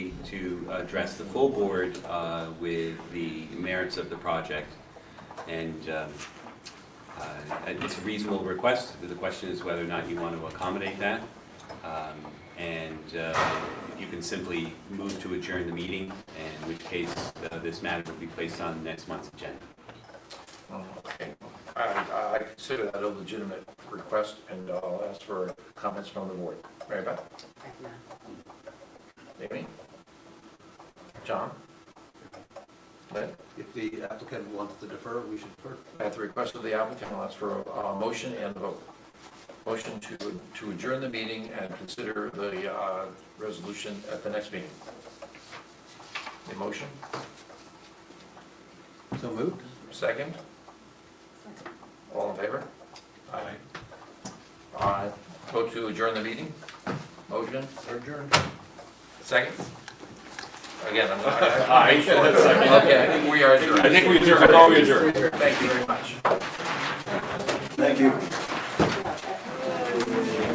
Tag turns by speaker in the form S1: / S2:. S1: to address the full board uh, with the merits of the project. And um, uh, and it's a reasonable request. The question is whether or not you want to accommodate that. Um, And uh, you can simply move to adjourn the meeting, in which case uh, this matter will be placed on next month's agenda.
S2: Okay. I, I consider that a legitimate request, and I'll ask for comments from the board. Mary Beth? Amy? John? Lynn?
S3: If the applicant wants to defer, we should defer.
S2: At the request of the applicant, I'll ask for a uh, motion and a vote. Motion to to adjourn the meeting and consider the uh, resolution at the next meeting. A motion,
S3: So moved?
S2: second? All in favor? Aye. Uh, Vote to adjourn the meeting? Motion,
S3: Or adjourned?
S2: second? Again, I'm not... Okay, we are adjourned.
S4: I think we adjourned, I thought we adjourned.
S2: Thank you very much.
S3: Thank you.